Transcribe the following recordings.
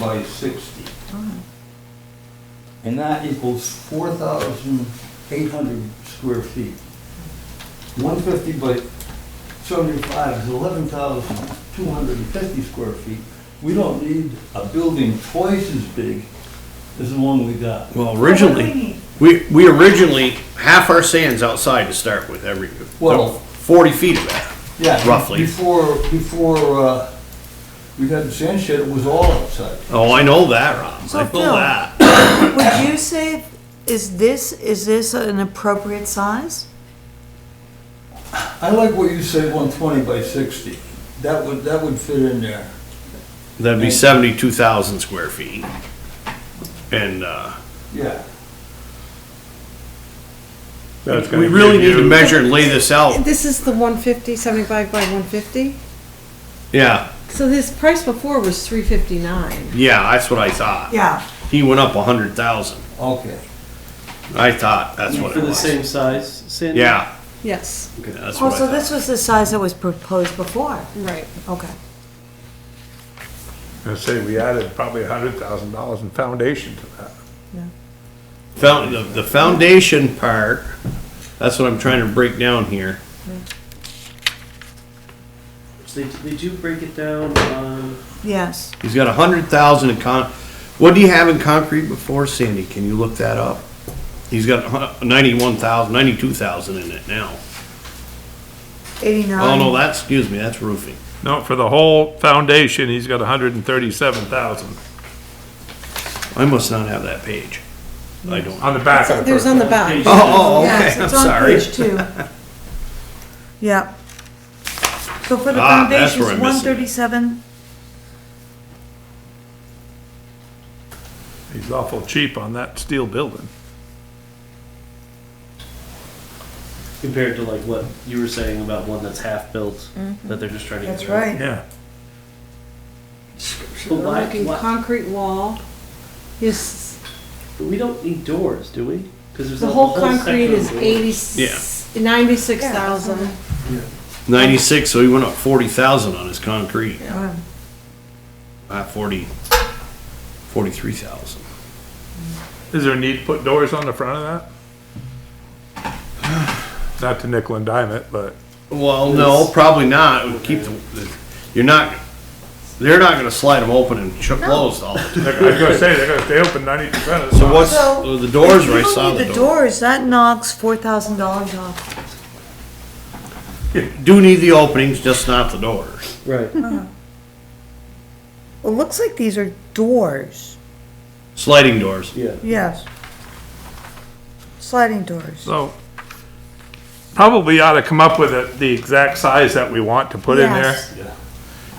by sixty. And that equals four thousand eight hundred square feet. One fifty by seventy-five is eleven thousand two hundred and fifty square feet. We don't need a building twice as big as the one we got. Well, What do we originally, need? we, we originally, half our sand's outside to start with every, Well- forty feet of that. Yeah, Roughly. Before, before, uh, we got the sand shed, it was all outside. Oh, I know that, Rob. So, I know Phil- that. Would you say, is this, is this an appropriate size? I like what you say, one twenty by sixty. That would, that would fit in there. That'd be seventy-two thousand square feet. And, uh, Yeah. we really need to measure and lay this out. This is the 150, 75 by 150. Yeah, So this price before was 359. yeah, that's what I thought. Yeah. He went up a hundred thousand. Okay. I thought that's what For it the was. same size, Sandy? Yeah. Yes, Okay, that's Oh, what I so thought. this was the size that was proposed before? right. Okay. I say we added probably a hundred thousand dollars in foundation to that. Found, the, the foundation part, that's what I'm trying to break down here. They, they do break it down um, on, Yes. He's got a hundred thousand in con, what do you have in concrete before, Sandy? Can you look that up? He's got ninety-one thousand, ninety-two thousand in it now. Eighty-nine. Oh, no, that's, excuse me, that's roofing. No, for the whole foundation, he's got a hundred and thirty-seven thousand I must not have that page. I don't. Oh, on the back of the There's on the back. page. oh, Yes, okay, I'm it's on sorry. page two. Yeah. So for the Ah, that's foundation, where I it's one missed it. thirty-seven, He's awful cheap on that steel building. compared to like what you were saying about one that's half built, Mm-hmm. that they're just trying to. get that's rid of. right. Yeah. But We're why, looking why, concrete wall. Yes, but we don't need doors, do we? Because there's the a whole concrete section of is doors. 80, 96,000. Ninety-six, so he went up forty thousand on his concrete, Um, uh, forty, forty-three thousand. Is there a need to put doors on the front of that? Not to nickel and dime it, but Well, no, probably not. It would keep the, you're not, they're not gonna slide them open and ch- closed all the time. I was gonna say, they're gonna, they open ninety percent of the. So what's, So, the doors, if right, you saw don't need the the door. doors, that knocks four thousand dollars off. Do need the openings, just not the doors. Right. It looks like these are doors. Sliding doors. Yeah. Yes. Sliding doors. So, probably ought to come up with it- the exact size that we want to put in there. Yes.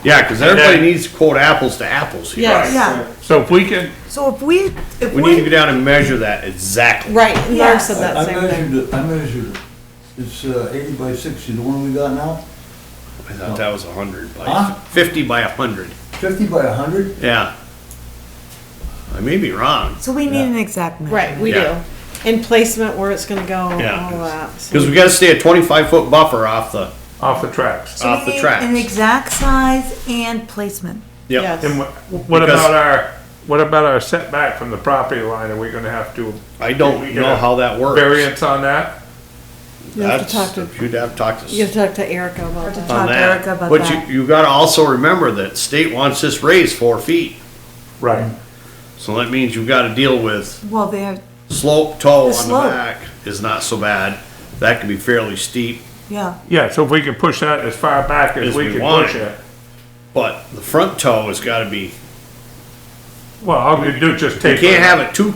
Yeah, cause everybody needs to quote apples to apples here. Yes. Yeah, So if we can, so if we, if We need to go we, down and measure that exactly. Right, and Laura Yes. said I that I same thing. measured it, I measured it. It's uh, eighty by sixty, the one we got now, I thought that was a hundred Huh? by, fifty by a hundred, fifty by hundred? yeah. I may be wrong, so we need an exact measure. Right, we do. Yeah. And placement, where it's gonna go, all Yeah. that. so- cause we gotta stay a twenty-five foot buffer off the, off the tracks. So we off the need tracks. An exact size and placement. yep. Yes. And wh- what Because- about our, what about our setback from the property line? Are we gonna have to I don't We know gotta how that works. variance on that? You have to That's- talk to, You'd have to talk to. s- you have to talk to Erica about that. on Talk to that. Erica about But that. you, you gotta also remember that state wants this raised four feet, Right. so that means you've gotta deal with Well, they're, slope toe The on the slope. back is not so bad. That can be fairly steep, yeah, Yeah, so if we can push that as far back As as we we can want push it. it. but the front toe has gotta be, Well, all we do is just you take. can't have it too,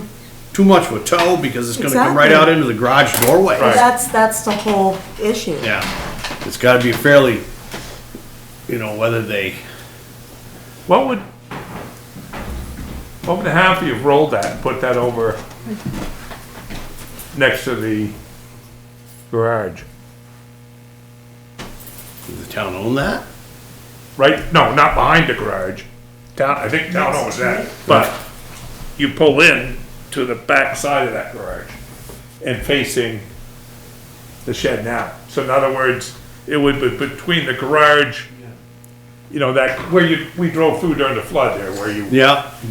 too much with toe because it's gonna come right out Exactly. into the garage doorway. Right. that's, that's the whole issue. Yeah, it's gotta be fairly, you know, whether they, What would, what would happen if you rolled that and put that over next to the garage? does the town own that? Right, no, not behind the garage. Down, I think down owns that, but you pull in to the back side of that garage and facing the shed now. So in other words, it would be between the garage, you know, that, where you, we drove through during the flood there, where you Yeah,